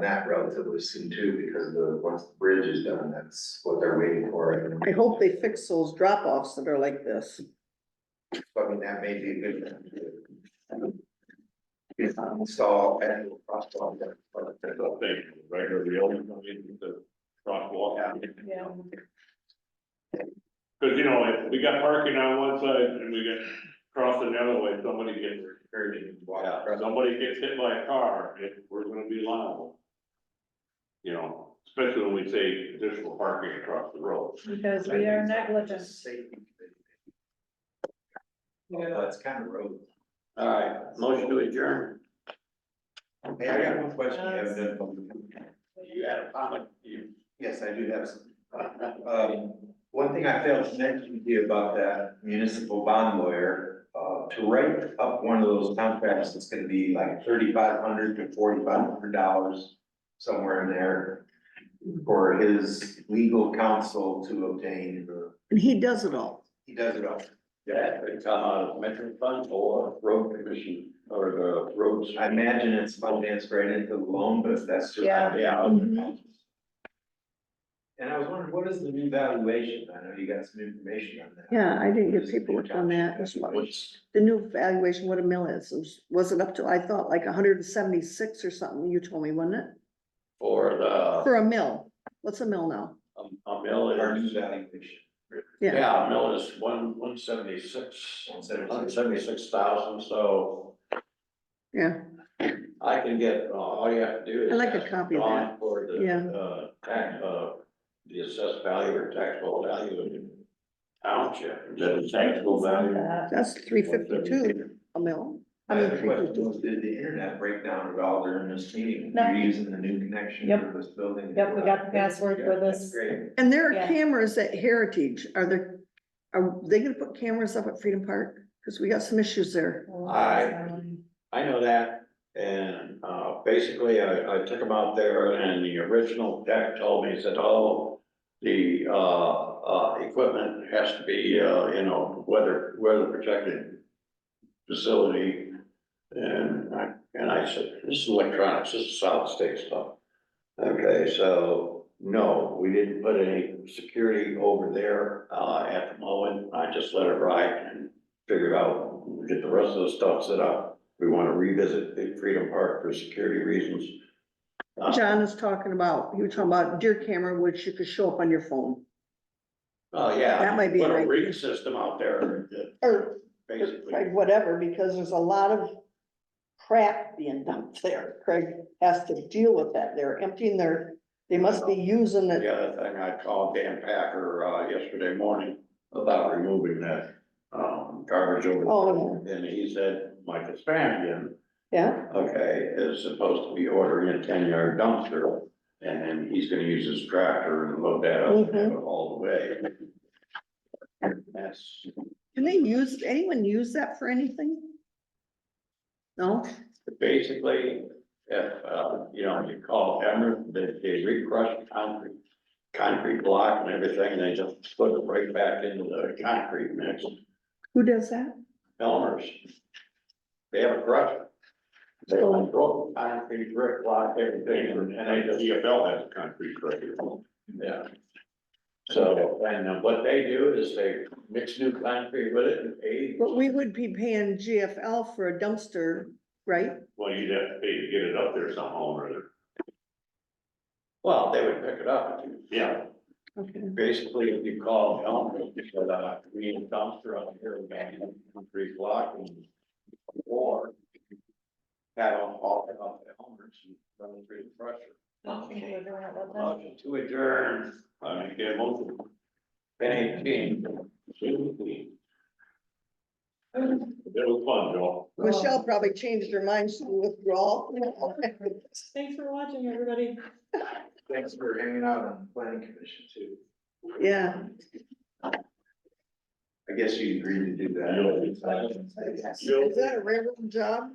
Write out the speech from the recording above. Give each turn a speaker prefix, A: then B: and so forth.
A: that relatively soon too, because the, once the bridge is done, that's what they're waiting for.
B: I hope they fix those drop offs that are like this.
A: I mean, that may be a good. thing. It's install and crosswalk. that-
C: That's a thing, regular real, I mean, the crosswalk.
D: Yeah.
C: Cause you know, if we got parking on one side and we got crossing the other way, somebody gets hurt and
A: Yeah.
C: somebody gets hit by a car, it, we're gonna be liable. You know, especially when we say additional parking across the road.
D: Because we are negligent.
A: Safety. Well, that's kind of road.
E: All right, motion to adjourn.
A: Hey, I got one question. you have that-
E: You had a comment, you.
A: Yes, I do have some. Um, one thing I failed to mention to you about that municipal bond lawyer, uh, to write up one of those contracts, it's gonna be like thirty-five hundred to forty-five hundred dollars. Somewhere in there for his legal counsel to obtain,
B: And he does it all.
A: he does it all.
E: That could come out of metro fund or road commission or the roads.
A: I imagine it's financed right into the loan, but that's just.
D: Yeah.
E: Yeah,
B: Mm-hmm.
A: And I was wondering, what is the new valuation? I know you got some information on that.
B: Yeah, I didn't get paperwork on that. That's what-
A: What's-
B: The new valuation, what a mill is, was- was it up to, I thought like hundred and seventy-six or something, you told me, wasn't it?
E: for the,
B: For a mill. What's a mill now?
E: um, a mill
A: Our new
E: is,
A: valuation.
B: Yeah,
E: yeah, a mill is one, one seventy-six, one seventy-six thousand, so
B: yeah.
E: I can get, uh, all you have to do is.
B: I'd like a
E: ask
B: copy of
E: Dawn
B: that.
E: For
B: Yeah.
E: the, uh, tax, uh, the assessed value or taxable value of the township.
C: The taxable
D: That.
B: That's three fifty-two a mill. I
A: My
B: mean,
A: other
B: three
A: question
B: fifty.
A: was, did the internet break down at all during this meeting?
D: No.
A: You're using the new connection
D: Yep.
A: for this building?
D: Yep, we got the password for this.
A: Great.
B: And there are
D: Yeah.
B: cameras at Heritage. Are there, are they gonna put cameras up at Freedom Park? Cause we got some issues there.
D: Um,
E: Aye. I know that, and, uh, basically, I, I took them out there, and the original tech told me, he said, oh, the, uh, uh, equipment has to be, uh, you know, weather, weather protected facility. And I, and I said, this is electronics, this is solid state stuff. Okay, so, no, we didn't put any security over there, uh, at the moment, I just let it ride and figure out, get the rest of the stuff set up. We want to revisit the Freedom Park for security reasons. Uh,
B: John is talking about, he was talking about deer camera, which you could show up on your phone.
E: Oh, yeah.
B: That might be
E: Put
B: an
E: a
B: idea.
E: reading system out there, that
B: Or
E: basically.
B: Craig, whatever, because there's a lot of crap being dumped there. Craig has to deal with that. They're emptying their, they must be using
E: The
B: it.
E: other thing, I called Dan Packer, uh, yesterday morning about removing that, um, garbage
B: Oh,
E: over. there. And he said, Mike Espanian,
B: Yeah,
E: okay, is supposed to be ordering a ten yard dumpster. And then he's gonna use his tractor and load that up and have
B: Mm-hmm.
E: it all the way. That's
B: can they use, anyone use that for anything? No,
E: basically, if, uh, you know, you call Emerald, they, they recrush concrete. Concrete block and everything, and they just put it right back into the concrete mix,
B: who does that?
E: Elmer's. They have a crusher. They like broken concrete, brick block, everything, and they
C: And
E: just.
C: EFL has a concrete criteria.
E: Yeah. So, and uh, what they do is they mix new concrete with it and pave.
B: But we would be paying GFL for a dumpster, right?
C: Well, you'd have to pay to get it up there somehow or other.
E: Well, they would pick it up.
C: Yeah.
B: Okay.
E: Basically, if you call Elm, you said, uh, we need a dumpster out here, we got a concrete block and or had them haul it off the Elmers and run it through the crusher. Motion to adjourn,
C: I mean, get most of
E: Penny King.
C: It was fun, Joel.
B: Michelle probably changed her mind, she withdrawal.
D: Thanks for watching, everybody.
A: Thanks for hanging out on the planning commission too.
B: Yeah,
A: I guess you agreed to do that.
C: Yeah.
B: is that a railroad job?